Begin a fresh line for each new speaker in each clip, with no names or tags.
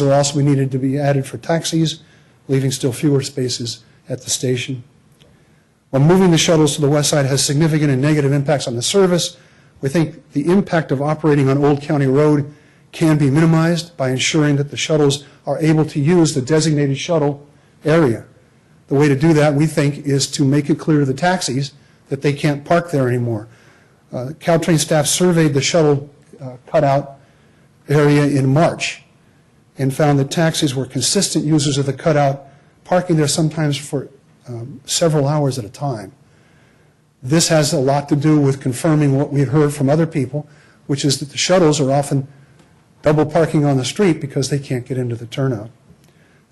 or else we needed to be added for taxis, leaving still fewer spaces at the station. While moving the shuttles to the west side has significant and negative impacts on the service, we think the impact of operating on Old County Road can be minimized by ensuring that the shuttles are able to use the designated shuttle area. The way to do that, we think, is to make it clear to the taxis that they can't park there anymore. Uh, Caltrain staff surveyed the shuttle uh, cutout area in March and found that taxis were consistent users of the cutout, parking there sometimes for um, several hours at a time. This has a lot to do with confirming what we've heard from other people, which is that the shuttles are often double parking on the street because they can't get into the turnout.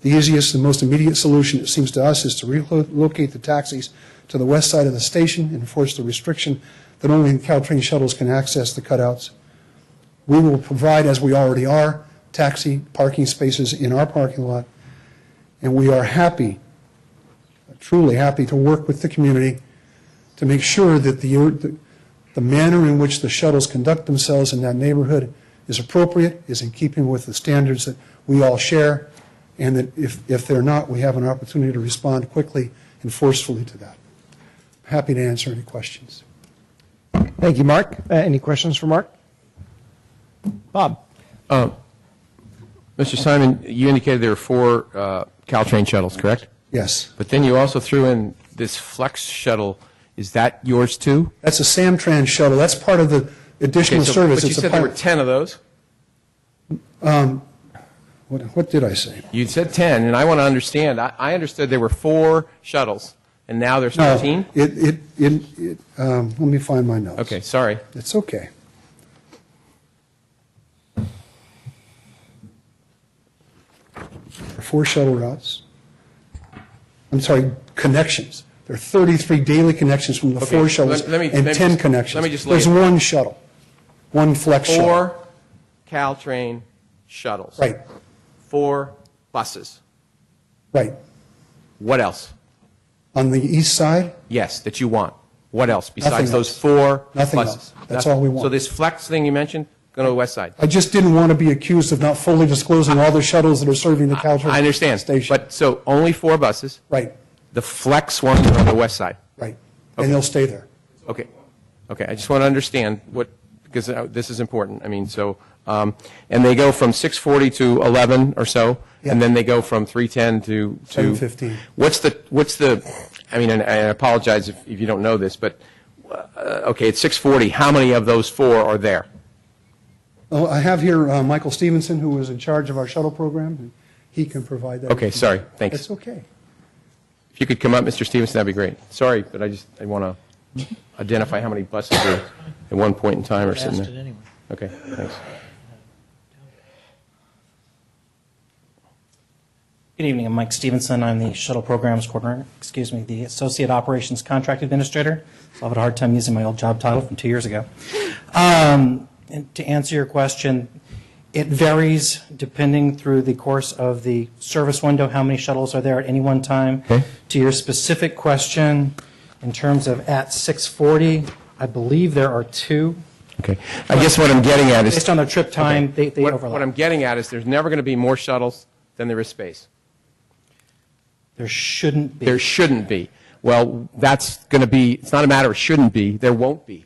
The easiest and most immediate solution, it seems to us, is to relocate the taxis to the west side of the station and enforce the restriction that only Caltrain shuttles can access the cutouts. We will provide, as we already are, taxi parking spaces in our parking lot, and we are happy, truly happy, to work with the community to make sure that the, the manner in which the shuttles conduct themselves in that neighborhood is appropriate, is in keeping with the standards that we all share, and that if, if they're not, we have an opportunity to respond quickly and forcefully to that. Happy to answer any questions.
Thank you, Mark. Uh, any questions for Mark? Bob?
Mr. Simon, you indicated there were four uh, Caltrain shuttles, correct?
Yes.
But then you also threw in this Flex shuttle. Is that yours too?
That's a Samtrans shuttle. That's part of the
Okay,
additional
so-
service.
But you
It's a
said there were
part-
10 of those.
What, what did I say?
You said 10, and I want to understand. I- I understood there were four shuttles, and now there's
No,
13?
It, it, it, it, um, let me find my notes.
Okay, sorry.
It's okay. Four shuttle routes. I'm sorry, connections. There are 33 daily connections from the
Okay,
four shuttles
let- let me-
and
let me
10
just-
connections.
let me just lay
There's
it.
one shuttle, one flex shuttle.
Four Caltrain shuttles.
Right,
Four buses.
right.
What else?
On the east side,
Yes, that you want. What else
Nothing
besides those
else.
four buses?
Nothing else. That's all we want.
So this Flex thing you mentioned, go to the west side.
I just didn't want to be accused of not fully disclosing all the shuttles that are serving the Caltrain station.
I understand. But so only four buses.
Right,
The flex ones are on the west side.
right. And they'll stay there.
Okay. Okay. I just want to understand what, because uh, this is important. I mean, so, um, and they go from 640 to 11 or so, and
Yeah.
then they go from 310 to. to-
715.
What's the, what's the, I mean, and I apologize if if you don't know this, but, uh, okay, it's 640. How many of those four are there?
Oh, I have here uh, Michael Stevenson, who was in charge of our shuttle program, and he can provide that.
Okay, sorry. Thanks.
It's okay.
If you could come up, Mr. Stevenson, that'd be great. Sorry, but I just, I want to identify how many buses are at one point in time or sitting
asked
there.
it anyway.
Okay, thanks.
Good evening, I'm Mike Stevenson, I'm the Shuttle Programs Coordinator, excuse me, the Associate Operations Contract Administrator, so I have a hard time using my old job title from two years ago. Um, And to answer your question, it varies depending through the course of the service window, how many shuttles are there at any one time. To your specific question, in terms of at 6:40, I believe there are two.
Okay. I guess what I'm getting at is.
Based on their trip time, they they
What what I'm
overlap.
getting at is there's never going to be more shuttles than there is space.
There shouldn't be.
There shouldn't be. Well, that's going to be, it's not a matter of shouldn't be, there won't be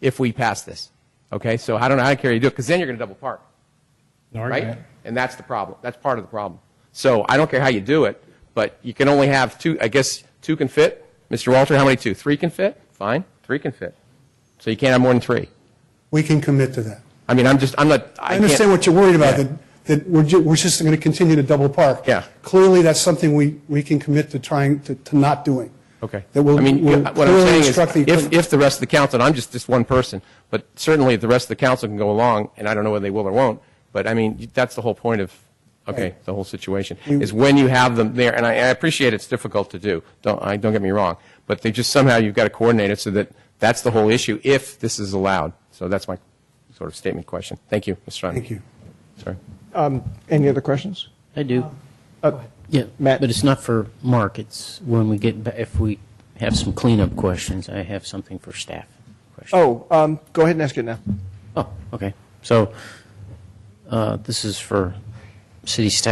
if we pass this. Okay? So I don't know how to carry you do it because then you're going to double park.
No
right?
argument.
And that's the problem. That's part of the problem. So I don't care how you do it, but you can only have two, I guess, two can fit. Mr. Walter, how many two? Three can fit? Fine, three can fit. So you can't have more than three.
We can commit to that.
I mean, I'm just, I'm not, I
I
can't.
understand what you're worried about,
Yeah.
that, that we're, ju- we're just going to continue to double park.
Yeah.
Clearly, that's something we, we can commit to trying, to, to not doing.
Okay.
That we'll,
I mean,
we'll
what I'm
clearly
saying is,
instruct the.
if, if the rest of the council, and I'm just this one person, but certainly if the rest of the council can go along, and I don't know whether they will or won't, but I mean, that's the whole point of, okay,
Right.
the whole situation,
You-
is when you have them there, and I, I appreciate it's difficult to do, don't, I, don't get me wrong, but they just somehow, you've got to coordinate it so that, that's the whole issue, if this is allowed. So that's my sort of statement question. Thank you, Mr. Simon.
Thank you.
Sorry.
Any other questions?
I do.
Uh,
Yeah,
Matt.
but it's not for Mark, it's when we get, ba- if we have some cleanup questions, I have something for staff. Oh, question.
Oh, um, go ahead and ask it now.
Oh, okay. So, uh, this is for city staff